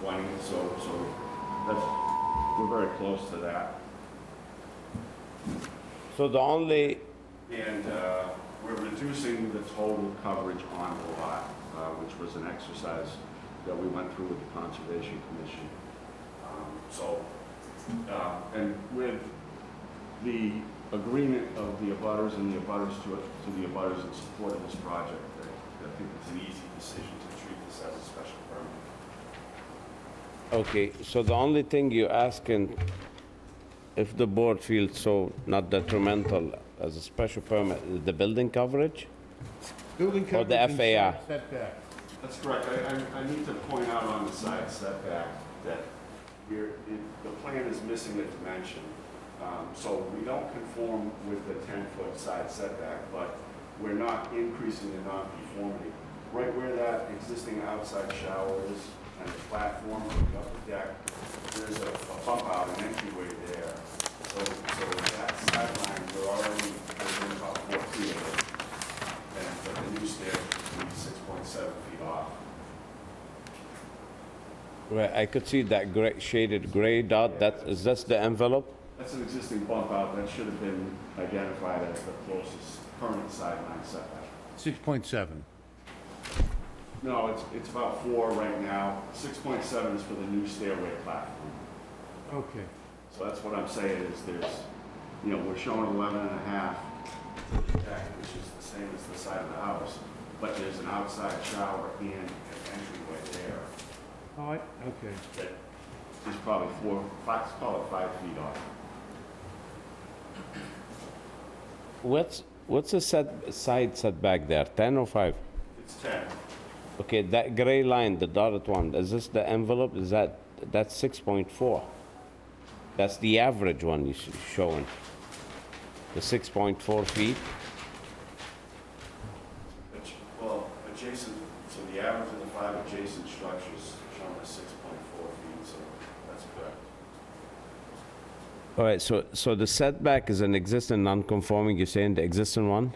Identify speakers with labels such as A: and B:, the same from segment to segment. A: twenty, so, so that's, we're very close to that.
B: So the only,
A: And uh, we're reducing the total coverage on the lot, uh, which was an exercise that we went through with the Conservation Commission. Um, So, uh, and with the agreement of the abutters and the abutters to it, to the abutters in support of this project, I- I think it's an easy decision to treat this as a special permit.
B: okay, so the only thing you're asking, if the board feels so not detrimental as a special permit, is the building coverage?
C: Building
B: Or
C: coverage
B: the
C: and
B: FAR.
C: side setback.
A: That's correct. I, I, I need to point out on the side setback that you're, it- the plan is missing a dimension. Um, So we don't conform with the 10-foot side setback, but we're not increasing the nonconformity. Right where that existing outside shower is and the platform going up the deck, there's a a bump out, an entryway there. So, so that sideline, we're already within about four feet of it and but the new stair would be six point seven feet off.
B: Right, I could see that gray, shaded gray dot, that, is that the envelope?
A: That's an existing bump out that should have been identified as the closest current sideline setback.
C: 6.7.
A: No, it's, it's about four right now, six point seven is for the new stairway platform.
C: Okay.
A: So that's what I'm saying is there's, you know, we're showing eleven and a half to the deck, which is the same as the side of the house, but there's an outside shower and an entryway there
C: All right, okay.
A: that is probably four, five, let's call it five feet off.
B: What's, what's the set, side setback there, 10 or 5?
A: It's ten.
B: Okay, that gray line, the dotted one, is this the envelope, is that, that's 6.4? That's the average one you're showing, the 6.4 feet?
A: Adj- Well, adjacent, so the average of the five adjacent structures shown as six point four feet, so that's correct.
B: All right, so, so the setback is an existing non-conforming, you're saying the existing one?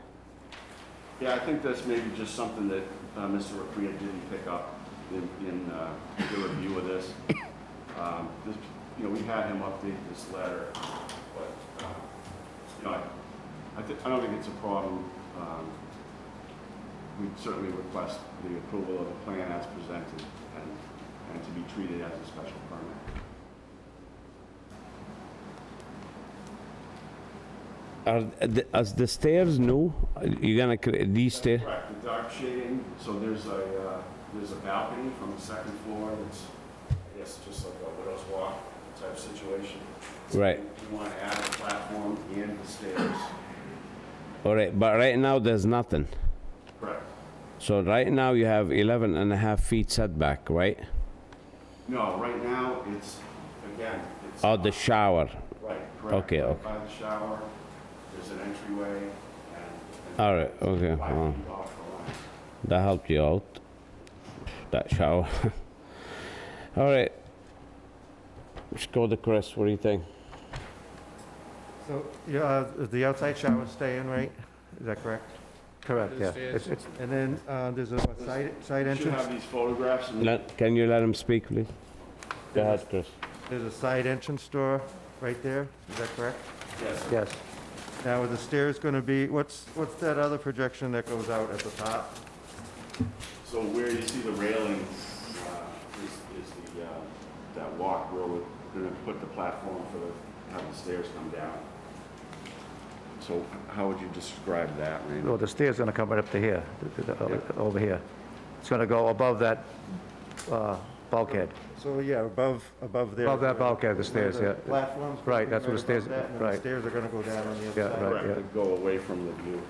A: Yeah, I think that's maybe just something that uh, Mr. Rapria didn't pick up in, in uh, the review of this. Um, this- You know, we had him update this letter, but, uh, you know, I- I, thi- I don't think it's a problem. Um, We certainly request the approval of the plan as presented and, and to be treated as a special permit.
B: Are, the- is the stairs new? You're gonna, cre- these stairs?
A: Correct, the dark shading, so there's a, uh, there's a balcony from the second floor that's, I guess, just like a widow's walk type situation. So
B: Right.
A: You want to add a platform and the stairs.
B: All right, but right now, there's nothing.
A: Correct.
B: So right now, you have 11 and a half feet setback, right?
A: No, right now, it's, again, it's.
B: Oh, the shower.
A: Right, correct.
B: Okay,
A: Right
B: okay.
A: By the shower, there's an entryway and. and
B: All right, okay,
A: Five
B: well,
A: feet off the line.
B: that helped you out, that shower. All right. Let's go to Chris, what do you think?
D: So, yeah, uh, the outside shower's staying, right? Is that correct? Correct, yeah. It's- it's- And then uh, there's a what, side side
A: Should
D: entrance?
A: have these photographs and.
B: Let- Can you let him speak, please? Go ahead, Chris.
D: There's a side entrance door right there, is that correct?
A: Yes.
D: Yes. Now, are the stairs going to be, what's, what's that other projection that goes out at the top?
A: So where you see the railing uh, is, is the, uh, that walk where we're gonna put the platform for the, have the stairs come down. So how would you describe that, Randy?
E: Well, the stair's going to come right up to here, th- th- th- over here. It's going to go above that uh, bulkhead.
D: So, yeah, above, above there.
E: Above that bulkhead, the
D: Where
E: stairs, yeah.
D: Platforms. gonna
E: Right,
D: be
E: that's where
D: above
E: the stairs-
D: that, and then
E: right.
D: the stairs are going to go down on the
E: Yeah,
D: other side.
E: right.
A: Correct, to go away from the view.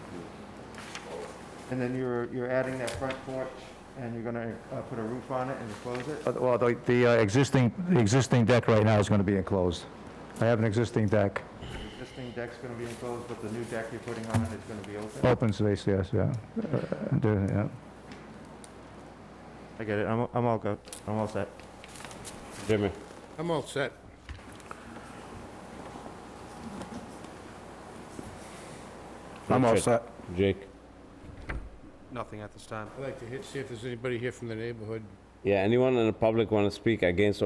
D: And then you're, you're adding that front porch, and you're going to put a roof on it and close it?
E: Uh, Well, the- the uh, existing, the existing deck right now is going to be enclosed. I have an existing deck,
D: Existing deck's going to be enclosed, but the new deck you're putting on is going to be open?
E: open space, yes, yeah. Uh, do- yeah.
D: I get it, I'm, I'm all good, I'm all set.
B: Jimmy.
C: I'm all set.
F: I'm all
B: Richard,
F: set.
B: Jake.
G: Nothing at this time.
C: I'd like to hit, see if there's anybody here from the neighborhood.
B: Yeah, anyone in the public want to speak against